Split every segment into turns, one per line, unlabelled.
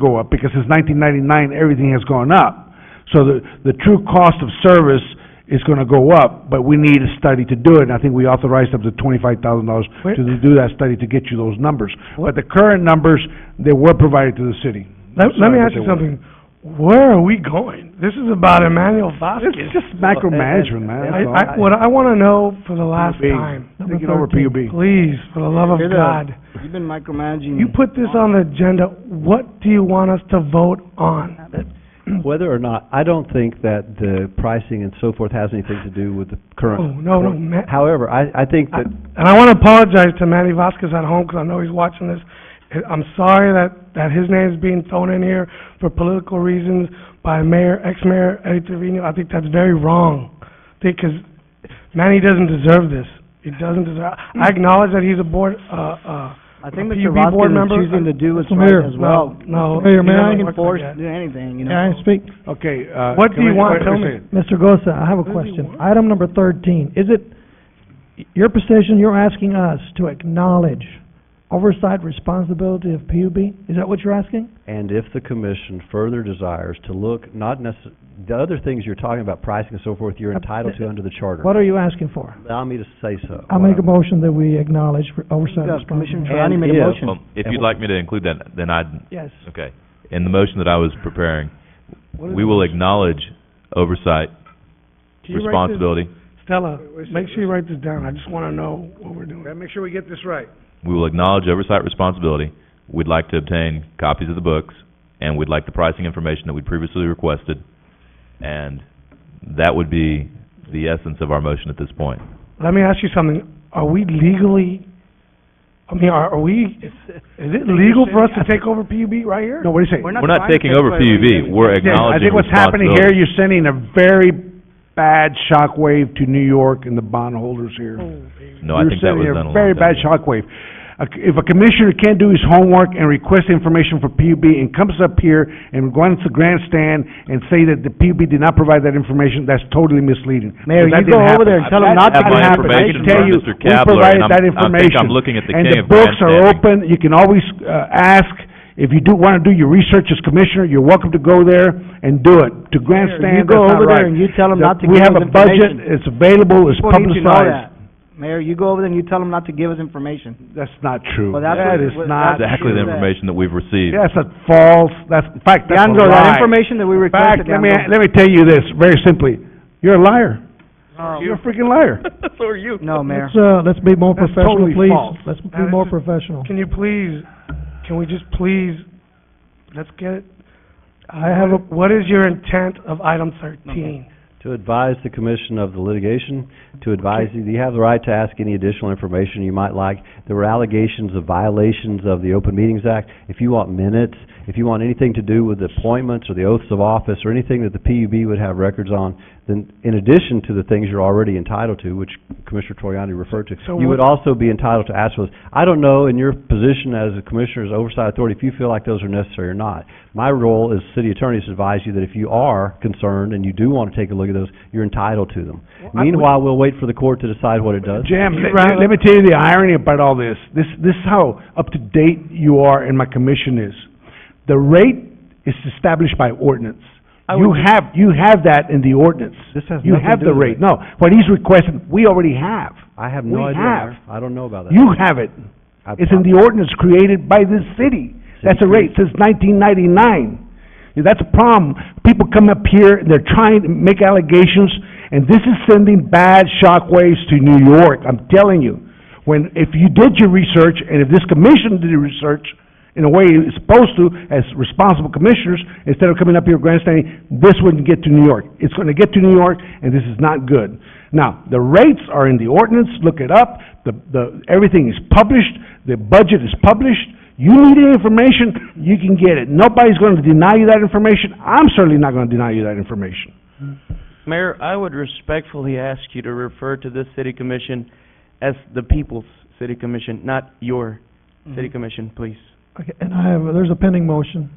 go up, because since nineteen ninety-nine, everything has gone up. So the, the true cost of service is gonna go up, but we need a study to do it, and I think we authorized up to twenty-five thousand dollars
Where-
to do that study to get you those numbers. But the current numbers, they were provided to the city.
Let, let
Sorry,
me ask
but
you
they weren't.
something. Where are we going? This is about Emmanuel Vasquez.
It's just micromanagement, man, that's all.
I, I, what I wanna know for the last
PUB.
time.
Take it over, PUB.
Please, for the love of
You're the-
God,
You've been micromanaging.
you put this on the agenda, what do you want us to vote on?
Whether or not, I don't think that the pricing and so forth has anything to do with the current.
Oh, no, no, Ma-
However, I, I think
I-
that,
And I wanna apologize to Manny Vasquez at home, 'cause I know he's watching this. I- I'm sorry that, that his name's being thrown in here for political reasons by Mayor, ex-Mayor Eddie Trevino. I think that's very wrong. I think 'cause Manny doesn't deserve this. He doesn't deserve, I acknowledge that he's a board, uh, uh,
I think
the
Mr.
PUB board
Vasquez is
member-
choosing to do what's
Mr.
right
Mayor,
as well.
no, no.
Mayor,
he
may I-
doesn't work
You're not
like
forced
that.
to do anything, you know?
Can I speak?
Okay, uh.
What do
can
you
I-
want?
wait-
Tell
wait a
me.
second.
Mr. Gosa, I have a
What does he
question.
want?
Item number thirteen, is it your position, you're asking us to acknowledge oversight responsibility of PUB? Is that what you're asking?
and if the commission further desires to look, not necess, the other things you're talking about, pricing and so forth, you're entitled to under the charter.
What are you asking for?
Allow me to say so.
I make a motion that we acknowledge for oversight
Yeah, Commissioner
responsibility.
Trelawney made a
if-
motion.
Well, if you'd like me to include that, then I'd,
Yes.
okay. In the motion that I was preparing,
What is
we
it?
will acknowledge oversight
Can you write this-
responsibility.
Stella,
Wait, wait a
make
second.
sure you write this down. I just wanna know what we're doing.
Gotta make sure we get this right.
We will acknowledge oversight responsibility. We'd like to obtain copies of the books, and we'd like the pricing information that we previously requested. And that would be the essence of our motion at this point.
Let me ask you something. Are we legally, I mean, are, are we, is it legal for us to take over PUB right here?
No, what do you say?
We're
We're not
trying to
taking
take
over
away
PUB,
anything.
we're
Yeah, I
acknowledging
think what's happening here,
responsibility.
you're sending a very bad shockwave to New York and the bondholders here.
Oh,
No, I think that was
You're
done
sending a
a long
very bad
time ago.
shockwave. A c- If a commissioner can't do his homework and requests information for PUB and comes up here and runs the grandstand and say that the PUB did not provide that information, that's totally misleading.
Mayor,
That didn't
you go
happen.
over there and tell them
That
not to
didn't
give
happen.
information
I can tell
from
you,
Mr.
we
Kabler,
provided
and I'm-
that
I think I'm
information.
looking at the
And
king
the
of
books are
grandstanding.
open, you can always, uh, ask, if you do wanna do your research as commissioner, you're welcome to go there and do it. To
You
grandstand, that's
go
not
over
right.
there and you tell them
The-
not to
We
give us
have a budget,
information.
it's available, it's
People need to know
publicized.
that. Mayor, you go over there and you tell them not to give us information.
That's not true.
Well, that's
That
what-
is
what-
not,
that's-
Exactly the
Sure that-
information that we've received.
that's a false, that's, in fact, that's a
Leandro, that
lie.
information that we
In fact,
requested,
let me,
Leandro.
let me tell you this, very simply, you're a liar. You're a freaking liar.
No, Mayor.
Let's, uh, let's be more
That's
professional,
totally
please.
false.
Let's
Now,
be
this
more
is-
professional.
Can you please, can we just please, let's get it?
I have a,
What is your intent of item thirteen?
To advise the commission of the litigation, to advise you, you have the right to ask any additional information you might like. There were allegations of violations of the Open Meetings Act. If you want minutes, if you want anything to do with appointments or the oaths of office or anything that the PUB would have records on, then in addition to the things you're already entitled to, which Commissioner Troyani referred to,
So
you
what-
would also be entitled to ask for those. I don't know in your position as a commissioner's oversight authority if you feel like those are necessary or not. My role as city attorney is to advise you that if you are concerned and you do want to take a look at those, you're entitled to them.
I-
Meanwhile, we'll wait for the court to decide what it does.
Jim,
You
let,
rather-
let me tell you the irony about all this. This, this is how up to date you are and my commission is. The rate is established by ordinance. You have, you have that in the ordinance.
This has
You
nothing to
have
do
the
with
rate.
it.
No, what he's requesting, we already have.
I have
We
no idea,
have.
Mayor. I don't know about that.
You have it.
I-
It's in the ordinance created by this city. That's a rate since nineteen ninety-nine. That's a problem. People come up here, they're trying to make allegations, and this is sending bad shockwaves to New York, I'm telling you. When, if you did your research, and if this commission did your research, in a way it's supposed to, as responsible commissioners, instead of coming up here grandstanding, this wouldn't get to New York. It's gonna get to New York, and this is not good. Now, the rates are in the ordinance, look it up, the, the, everything is published, the budget is published. You need any information, you can get it. Nobody's gonna deny you that information, I'm certainly not gonna deny you that information.
Mayor, I would respectfully ask you to refer to this city commission as the people's city commission, not your
Mm-hmm.
city commission, please.
okay, and I have, a- there's a pending motion.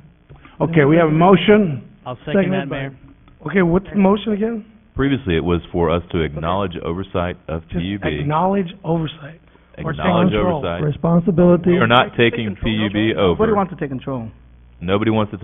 Okay, we have a motion.
I'll second
Second
that,
by-
Mayor.
Okay, what's the motion again?
Previously, it was for us to acknowledge oversight of
Just
PUB,
acknowledge oversight. or take
acknowledge
control.
oversight.
Responsibility.
We are not taking
Nobody
PUB over.
wants to take control.
Nobody wants to